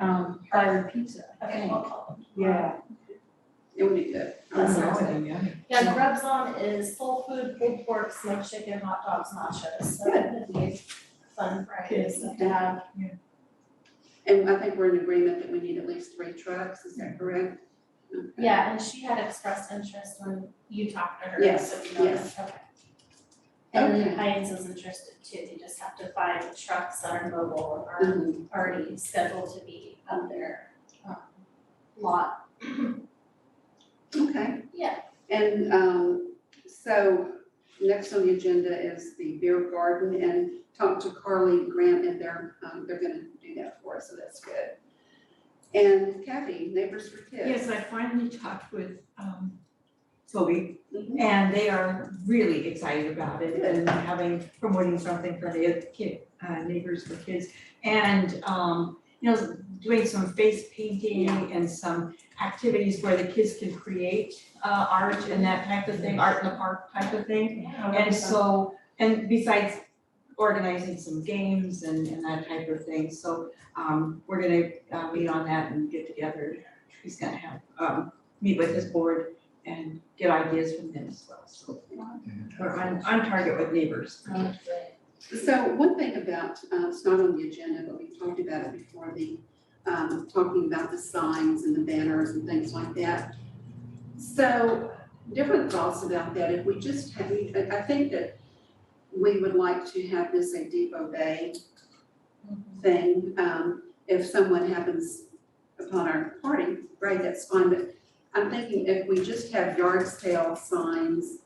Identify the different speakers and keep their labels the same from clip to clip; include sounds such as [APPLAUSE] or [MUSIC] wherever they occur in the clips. Speaker 1: um, fire pizza, I
Speaker 2: Okay,
Speaker 1: think.
Speaker 2: we'll call them.
Speaker 1: Yeah. It would be good.
Speaker 2: That sounds
Speaker 3: yummy.
Speaker 2: Yeah, Grub's on is soul food, pulled pork, smoked chicken, hot dogs, nachos, so that could be a fun Friday stuff to have.
Speaker 1: And I think we're in agreement that we need at least three trucks, is that correct? Okay.
Speaker 2: Yeah, and she had expressed interest when you talked to her,
Speaker 1: Yes,
Speaker 2: so you know,
Speaker 1: yes.
Speaker 2: okay. And
Speaker 1: Okay.
Speaker 2: then Heinz is interested too, they just have to find trucks that are mobile and
Speaker 1: Mhm.
Speaker 2: are already scheduled to be on their um lot.
Speaker 1: Okay.
Speaker 2: Yeah.
Speaker 1: And um, so next on the agenda is the beer garden and talk to Carly Grant and they're, um, they're gonna do that for us, so that's good. And Kathy, Neighbors for Kids.
Speaker 3: Yes, I finally talked with um Toby
Speaker 1: Mhm.
Speaker 3: and they are really excited about it and having, promoting something for the kid, uh neighbors for kids. And um, you know, doing some face painting and some activities where the kids can create uh art and that type of thing, art in the park type of thing.
Speaker 4: Oh,
Speaker 3: And so, and besides organizing some games and, and that type of thing, so, um, we're gonna, uh, meet on that and get together. He's gonna have, um, meet with his board and get ideas from them as well, so. We're on, on target with neighbors.
Speaker 1: So one thing about, uh, it's not on the agenda, but we talked about it before, the, um, talking about the signs and the banners and things like that. So different thoughts about that, if we just have, we- I, I think that we would like to have this a Depot Bay thing. Um, if someone happens upon our party, right, that's fine, but I'm thinking if we just have yard sale signs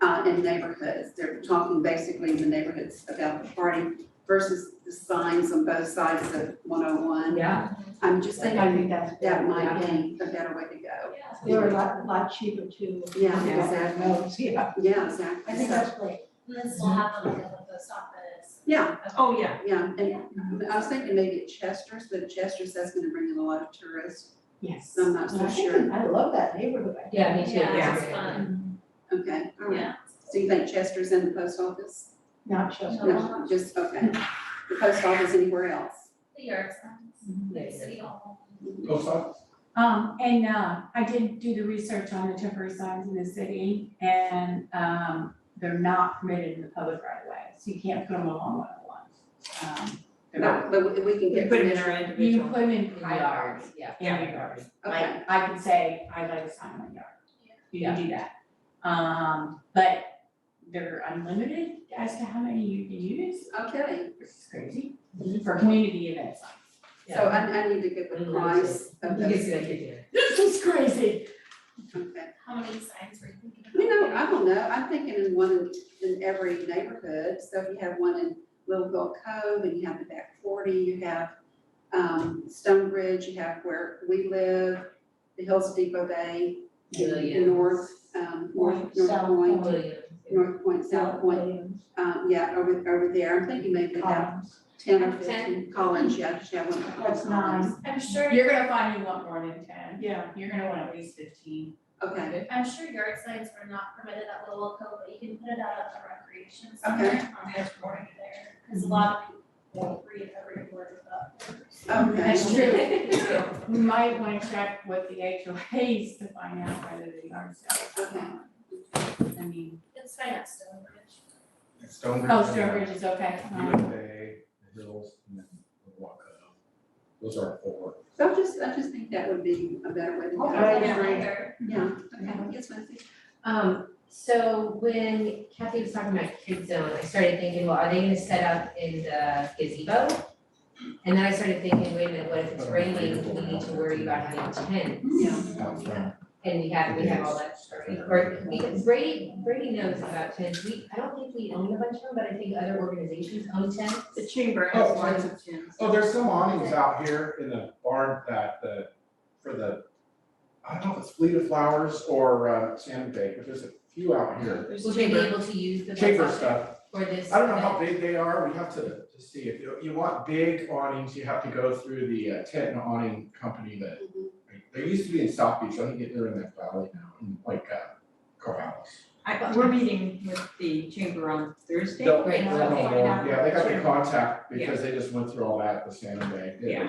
Speaker 1: uh, in neighborhoods, they're talking basically in the neighborhoods about the party versus the signs on both sides of one oh one.
Speaker 4: Yeah,
Speaker 1: I'm just
Speaker 4: I
Speaker 1: thinking
Speaker 4: think that's.
Speaker 1: that might be a better way to go.
Speaker 2: Yeah.
Speaker 4: They're a lot, lot cheaper too.
Speaker 1: Yeah,
Speaker 3: Yeah. Oh,
Speaker 1: exactly,
Speaker 4: yeah.
Speaker 1: yeah, exactly.
Speaker 4: I think
Speaker 1: So-
Speaker 4: that's great.
Speaker 2: And this will happen because of the stop that is.
Speaker 1: Yeah,
Speaker 3: Oh, yeah,
Speaker 1: yeah, and I was thinking maybe at Chester's, but Chester's, that's gonna bring in a lot of tourists,
Speaker 4: Yes.
Speaker 1: so I'm not so sure.
Speaker 4: I love that neighborhood. I
Speaker 5: Yeah, me too.
Speaker 2: Yeah, it's
Speaker 5: Yeah.
Speaker 2: fun,
Speaker 1: Okay, all right.
Speaker 2: yeah.
Speaker 1: So you think Chester's and the post office?
Speaker 4: Not just.
Speaker 1: No, just, okay. The post office anywhere else?
Speaker 2: The yard signs, the city hall.
Speaker 6: Post office?
Speaker 7: Um, and, uh, I did do the research on the temporary signs in the city and, um, they're not permitted in the public right of way, so you can't put them along one oh one. Um, they're not,
Speaker 1: No, but we- we can
Speaker 3: we
Speaker 1: get
Speaker 3: put them in
Speaker 1: permission.
Speaker 3: our
Speaker 7: you can
Speaker 3: individual.
Speaker 7: put them in my yard,
Speaker 4: yards,
Speaker 5: yeah.
Speaker 7: in your yard.
Speaker 1: Okay,
Speaker 7: Like, I could say, I like a sign in my yard. You can do that. Um, but they're unlimited as to how many you can use,
Speaker 1: okay.
Speaker 7: which is crazy, for community events. [LAUGHS]
Speaker 1: So I, I need to get the price of
Speaker 5: Mm, You get
Speaker 1: those.
Speaker 5: the idea.
Speaker 7: This is crazy.
Speaker 1: Okay.
Speaker 2: How many signs were you thinking about?
Speaker 1: You know, I don't know. I'm thinking in one, in every neighborhood. So if you have one in Little Gold Cove and you have the back forty, you have, um, Stone Bridge, you have where we live, the Hills of Depot Bay, the
Speaker 5: Millions.
Speaker 1: north, um, north, north
Speaker 4: South
Speaker 1: point,
Speaker 5: Williams.
Speaker 1: north point, south point. Um, yeah, over, over there, I'm thinking maybe about ten or fifteen college, yeah, just have one. for
Speaker 7: That's
Speaker 1: Collins.
Speaker 7: nice.
Speaker 2: I'm sure,
Speaker 7: You're gonna find you want more than ten.
Speaker 3: Yeah.
Speaker 7: You're gonna want at least fifteen.
Speaker 1: Okay,
Speaker 2: I'm sure yard signs were not permitted at Little Cove, but you can put it out at the recreation
Speaker 1: Okay.
Speaker 2: center on the morning there. Cause a lot of people read every word about.
Speaker 1: okay,
Speaker 7: That's true. We might wanna check with the HOAs to find out whether they are sales. I mean,
Speaker 2: It's fine at Stonebridge.
Speaker 6: Stonebridge.
Speaker 7: oh,
Speaker 6: uh,
Speaker 7: Sturbridge is okay. Um,
Speaker 6: USA, the Hills, and then the Walk Up. Those are four.
Speaker 1: so I just, I just think that would be a better way to go.
Speaker 5: Okay.
Speaker 2: Yeah,
Speaker 5: right.
Speaker 2: there.
Speaker 1: Oh, Yeah, okay, yes, Nancy.
Speaker 5: Um, so when Kathy was talking about Kid Zone, I started thinking, well, are they gonna set up in the gazebo? And then I started thinking, wait a minute, what if it's raining, we need to worry about having tents?
Speaker 1: Yeah,
Speaker 6: Out front.
Speaker 5: And we have, we have all that stuff, or we, Brady, Brady knows about tents, we, I don't think we own a bunch of them, but I think other organizations own tents.
Speaker 3: The chamber has
Speaker 6: Oh,
Speaker 3: lots of gyms.
Speaker 6: Oh, there's some awnings out here in the barn that the, for the, I don't know if it's Fleet of Flowers or uh, Sand Bay, but there's a few out here.
Speaker 3: There's
Speaker 5: Will they be
Speaker 3: chamber,
Speaker 5: able to use the.
Speaker 6: Chamber stuff.
Speaker 5: For this.
Speaker 6: I don't know how big
Speaker 5: event?
Speaker 6: they are. We have to, to see. If you, you want big awnings, you have to go through the uh, tent and awning company that
Speaker 1: Mhm.
Speaker 7: Mm-hmm.
Speaker 6: They used to be in South Beach, I think they're in that valley now, in like uh Corvallis.
Speaker 3: I, we're meeting with the chamber on Thursday.
Speaker 6: They'll-
Speaker 5: Great,
Speaker 3: and
Speaker 6: I
Speaker 3: I'll
Speaker 6: don't know,
Speaker 3: find out
Speaker 6: yeah, they got the
Speaker 3: what-
Speaker 6: contact because they just went through all that at the San Bay. They-
Speaker 3: Yeah.